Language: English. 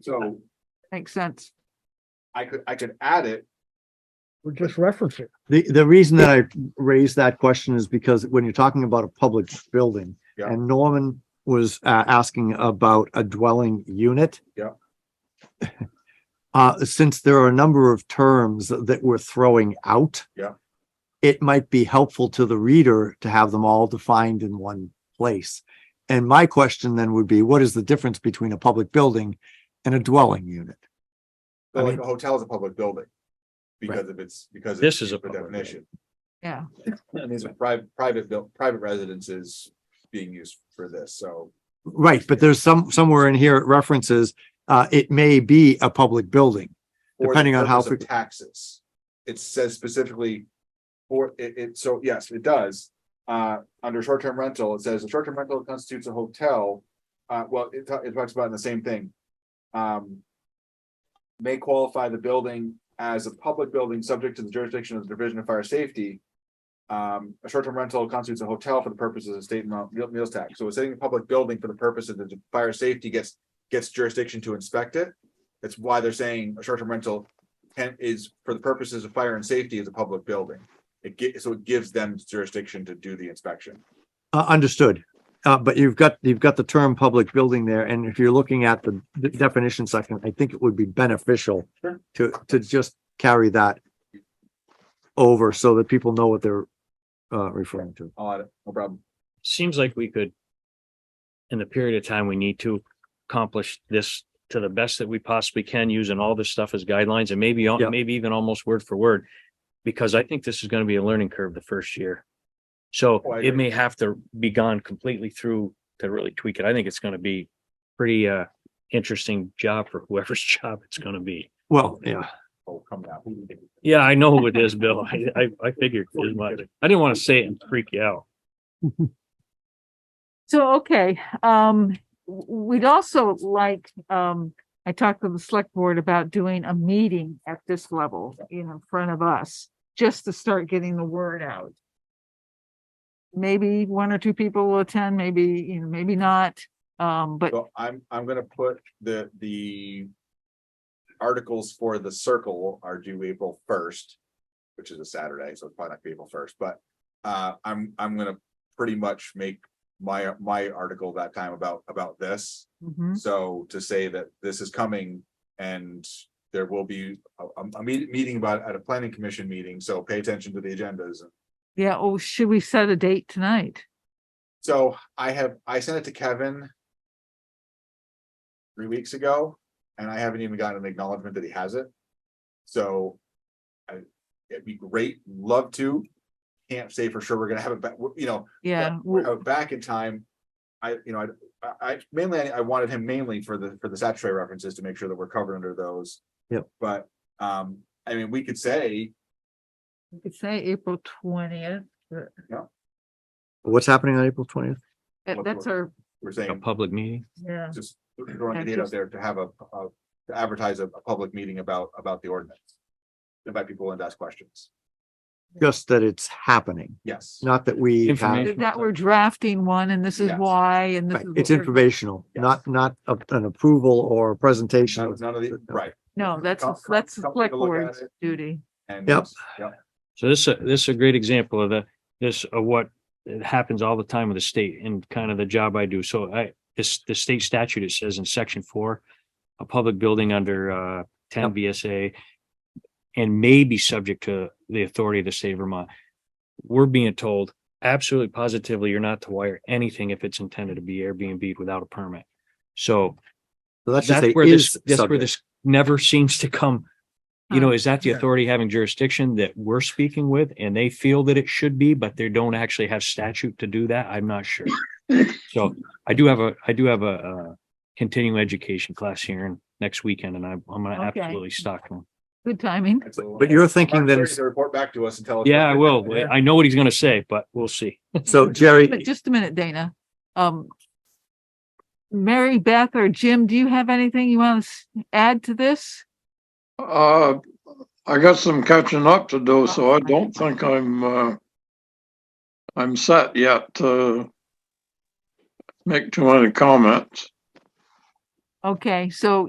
So Makes sense. I could, I could add it. We're just referencing. The, the reason that I raised that question is because when you're talking about a public building Yeah. and Norman was uh, asking about a dwelling unit. Yeah. Uh, since there are a number of terms that we're throwing out. Yeah. It might be helpful to the reader to have them all defined in one place. And my question then would be, what is the difference between a public building and a dwelling unit? So I like mean- a hotel is a public building. Because of its, because. of This is a the public Definition. Yeah. And these are private, private built, private residences being used for this, so. Right, but there's some, somewhere in here it references, uh, it may be a public building. for the Depending on how purpose of frequ- Taxes. It says specifically. For it, it, so yes, it does. Uh, under short-term rental, it says a short-term rental constitutes a hotel. Uh, well, it, ta- it talks about in the same thing. Um. May qualify the building as a public building subject to the jurisdiction of the Division of Fire Safety. Um, a short-term rental constitutes a hotel for the purposes of state and mo- meal- meals tax. So it's saying a public building for the purpose of the fire safety gets, gets jurisdiction to inspect it. That's why they're saying a short-term rental can is for the purposes of fire and safety is a public building. It ge- so it gives them jurisdiction to do the inspection. Uh, understood. Uh, but you've got, you've got the term public building there, and if you're looking at the d- definition section, I think it would be beneficial Sure. to, to just carry that over so that people know what they're, uh, referring to. I'll add it, Oh, no problem. Seems like we could, in the period of time we need to accomplish this to the best that we possibly can, using all this stuff as guidelines and maybe, al- Yeah. maybe even almost word for word. Because I think this is going to be a learning curve the first year. So Oh, I it agree. may have to be gone completely through to really tweak it. I think it's going to be pretty, uh, interesting job for whoever's job it's going to be. Well, yeah, Oh, come now. Yeah, I know what it is, Bill. I, I, I figured as much. I didn't want to say it and freak you out. So, okay, um, w- we'd also like, um, I talked to the select board about doing a meeting at this level, you know, in front of us, just to start getting the word out. Maybe one or two people will attend, maybe, you know, maybe not, um, but So I'm, I'm gonna put the, the articles for the circle are due April first, which is a Saturday, so it's probably not gonna be April first, but uh, I'm, I'm gonna pretty much make my, my article that time about, about this. Mhm. So to say that this is coming and there will be a, a- a meet- meeting about, it at a planning commission meeting, so pay attention to the agendas. yeah, oh, should we set a date tonight? So I have, I sent it to Kevin three weeks ago, and I haven't even gotten an acknowledgement that he has it. So I, it'd be great, love to, can't say for sure we're gonna have it, but, you know, Yeah, we're w- out Oh, back in time. I, you know, I- I, I mainly, I wanted him mainly for the, for the statutory references to make sure that we're covered under those. Yep. But, um, I mean, we could say, we could say April twentieth, what's happening on April twentieth? What- that's what- our, we're A saying, public meeting? yeah, just throwing Yeah, a date out just- there to have a, a, to advertise a, a public meeting about, about the ordinance. Invite people in to ask questions. Just that it's happening, Yes. not that we have, Information. that we're drafting one and this is Yes. why and this right, is. it's what we're- informational, not, not a- an approval or a presentation. None of none of the, right. No, that's, Come- a- that's the come take a select look at board's it. duty. And. Yep. Yep. So this, uh, this is a great example of the, this, of what happens all the time with the state and kind of the job I do. So I, this, the state statute, it says in section four, a public building under, uh, ten Yep. VSA and may be subject to the authority of the state of Vermont. We're being told absolutely positively, you're not to wire anything if it's intended to be Airbnb without a permit. So So That's just that's a where is this, that's where subject. this never seems to come you know, is that the Yeah. authority having jurisdiction that we're speaking with and they feel that it should be, but they don't actually have statute to do that? I'm not sure. So I do have a, I do have a, uh, continuing education class here in next weekend and I'm, I'm gonna Okay. absolutely stock them. Good timing. It's a little- But you're thinking Mark that Perry it's- to Report back to us and tell us. Yeah, I will. I know what he's gonna say, but we'll see. So But Jerry, just a minute, Dana. Um, Mary Beth or Jim, do you have anything you want to add to this? Uh, I got some catching up to do, so I don't think I'm, uh, I'm set yet to make too many comments. Okay, so